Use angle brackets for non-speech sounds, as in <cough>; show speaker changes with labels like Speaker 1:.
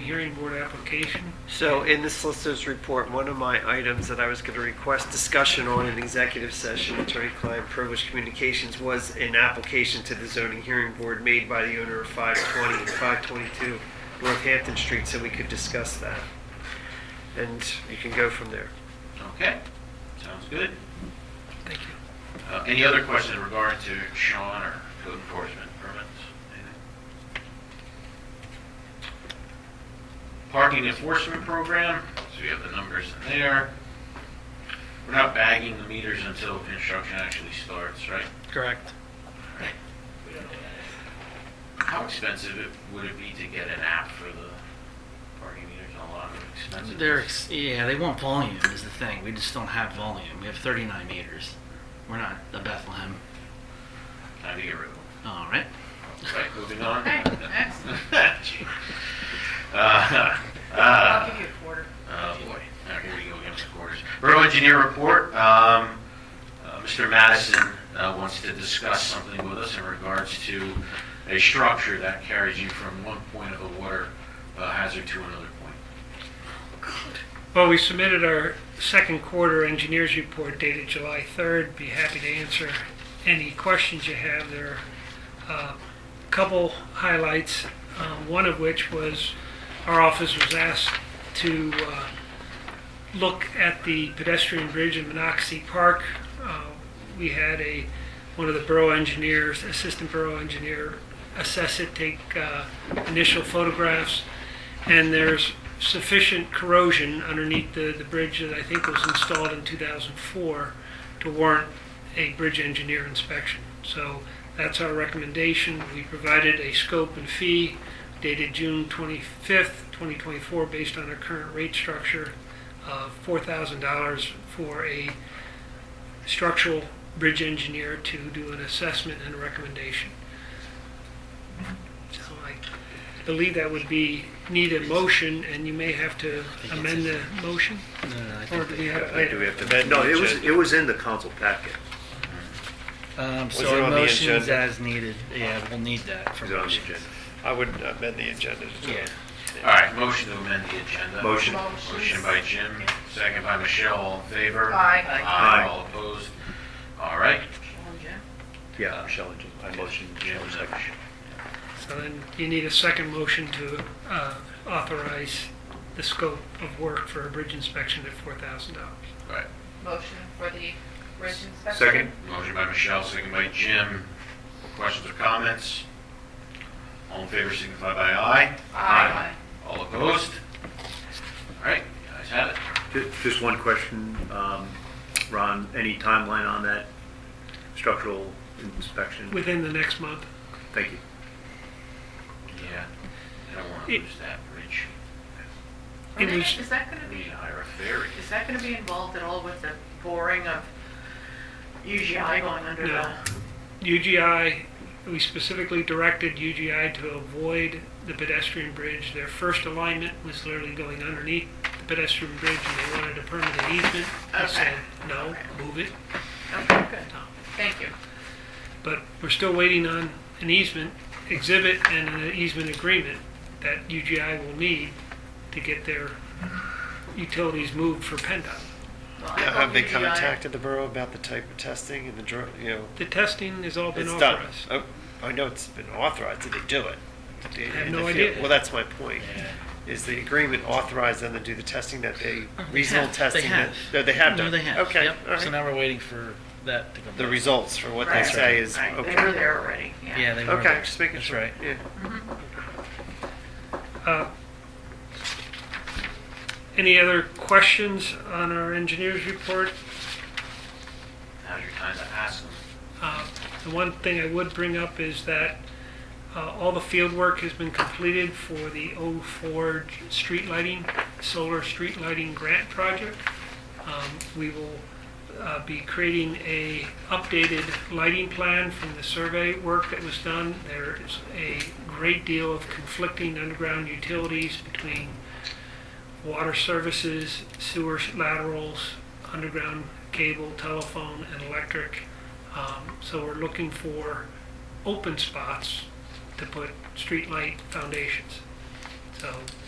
Speaker 1: hearing board application.
Speaker 2: So in the solicitor's report, one of my items that I was going to request discussion on in executive session, attorney-client privilege communications, was an application to the zoning hearing board made by the owner of 520 and 522 Northampton Street, so we could discuss that. And you can go from there.
Speaker 3: Okay, sounds good.
Speaker 1: Thank you.
Speaker 3: Uh, Any other questions in regard to Sean or code enforcement permits? Anything? Parking enforcement program, so we have the numbers in there. We're not bagging the meters until construction actually starts, right?
Speaker 2: Correct.
Speaker 3: Right. How expensive it- would it be to get an app for the parking meters? A lot of expensive.
Speaker 4: They're ex- yeah, they want volume is the thing. We just don't have volume. We have 39 meters. We're not a Bethlehem.
Speaker 3: Time to get rid of them.
Speaker 4: All right.
Speaker 3: Right, moving on.
Speaker 5: Right, excellent.
Speaker 3: <laughs> Uh,
Speaker 5: I'll
Speaker 3: uh,
Speaker 5: give you a quarter.
Speaker 3: Oh, boy. All right, Here we go, again with quarters. Borough engineer report. Um, uh, Mr. Madison uh, wants to discuss something with us in regards to a structure that carries you from one point of a water uh, hazard to another point.
Speaker 1: Well, we submitted our second quarter engineers report dated July 3rd. Be happy to answer any questions you have. There are uh, a couple highlights, uh, one of which was our office was asked to uh, look at the pedestrian bridge in Monocacy Park. Uh, We had a, one of the borough engineers, assistant borough engineer, assess it, take uh, initial photographs, and there's sufficient corrosion underneath the, the bridge that I think was installed in 2004 to warrant a bridge engineer inspection. So that's our recommendation. We provided a scope and fee dated June 25th, 2024, based on our current rate structure of $4,000 for a structural bridge engineer to do an assessment and a recommendation. So I believe that would be, need a motion, and you may have to
Speaker 4: think it's
Speaker 1: amend the motion,
Speaker 4: No, no, I
Speaker 1: or
Speaker 4: think
Speaker 1: do we
Speaker 4: they-
Speaker 1: have it later?
Speaker 6: No, it was, it was in the council packet.
Speaker 4: um,
Speaker 6: it
Speaker 4: so
Speaker 6: on the
Speaker 4: emotions
Speaker 6: agenda?
Speaker 4: as needed. Yeah, we'll need that for
Speaker 6: It was on the
Speaker 4: motions.
Speaker 6: agenda. I would amend the agenda.
Speaker 4: Yeah.
Speaker 3: All right, motion to amend the agenda.
Speaker 6: Motion.
Speaker 3: Motion by Jim, second by Michelle, all in favor?
Speaker 5: Aye.
Speaker 3: Aye, all opposed. All right.
Speaker 6: Yeah,
Speaker 3: Uh,
Speaker 6: Michelle, and Jim. I motioned, Jim was second.
Speaker 1: So then you need a second motion to uh, authorize the scope of work for a bridge inspection at $4,000.
Speaker 3: All right.
Speaker 5: Motion for the bridge inspection.
Speaker 6: Second?
Speaker 3: Motion by Michelle, second by Jim. Questions or comments? All in favor signify by aye.
Speaker 5: Aye.
Speaker 3: All opposed? All right, you guys have it.
Speaker 6: Ju- Just one question, um, Ron, any timeline on that structural inspection?
Speaker 1: Within the next month,
Speaker 6: Thank you.
Speaker 3: Yeah, I don't want to lose that bridge.
Speaker 5: Are
Speaker 1: It
Speaker 5: they-
Speaker 1: was-
Speaker 5: Is that gonna
Speaker 3: We need
Speaker 5: be,
Speaker 3: to hire a ferry.
Speaker 5: is that gonna be involved at all with the boring of UGI going under
Speaker 1: No.
Speaker 5: the?
Speaker 1: UGI, we specifically directed UGI to avoid the pedestrian bridge. Their first alignment was literally going underneath the pedestrian bridge, and they wanted a permanent easement. I said, no, move it.
Speaker 5: Okay, good. Thank you.
Speaker 1: But we're still waiting on an easement exhibit and an easement agreement that UGI will need to get their utilities moved for PennDOT.
Speaker 5: Well, I
Speaker 7: Now,
Speaker 5: thought
Speaker 7: have they
Speaker 5: UGI
Speaker 7: contacted the borough about the type of testing and the, dr- you know,
Speaker 1: The testing has all been
Speaker 7: it's done?
Speaker 1: authorized.
Speaker 7: Oh, I know it's been authorized, did they do it? Did they-
Speaker 1: I have
Speaker 7: in the
Speaker 1: no
Speaker 7: field?
Speaker 1: idea.
Speaker 7: Well, that's my point. Is the agreement authorized them to do the testing that they, reasonable
Speaker 4: They
Speaker 7: testing? that-
Speaker 4: have.
Speaker 7: No, they have done?
Speaker 4: No, they have.
Speaker 7: Okay,
Speaker 4: Yep.
Speaker 7: all
Speaker 4: So
Speaker 7: right.
Speaker 4: now we're waiting for that to come.
Speaker 7: The
Speaker 4: back.
Speaker 7: results for what they
Speaker 5: Right.
Speaker 7: say is,
Speaker 5: Right,
Speaker 7: okay.
Speaker 5: They were there already, yeah.
Speaker 4: Yeah, they were.
Speaker 7: Okay, just making
Speaker 4: That's
Speaker 7: sure.
Speaker 4: right.
Speaker 7: Yeah.
Speaker 1: Uh, Any other questions on our engineer's report?
Speaker 3: Now's your time to ask them.
Speaker 1: Uh, The one thing I would bring up is that uh, all the field work has been completed for the 04 street lighting, solar street lighting grant project. Um, We will uh, be creating a updated lighting plan from the survey work that was done. There is a great deal of conflicting underground utilities between water services, sewer laterals, underground cable, telephone, and electric. Um, So we're looking for open spots to put streetlight foundations. So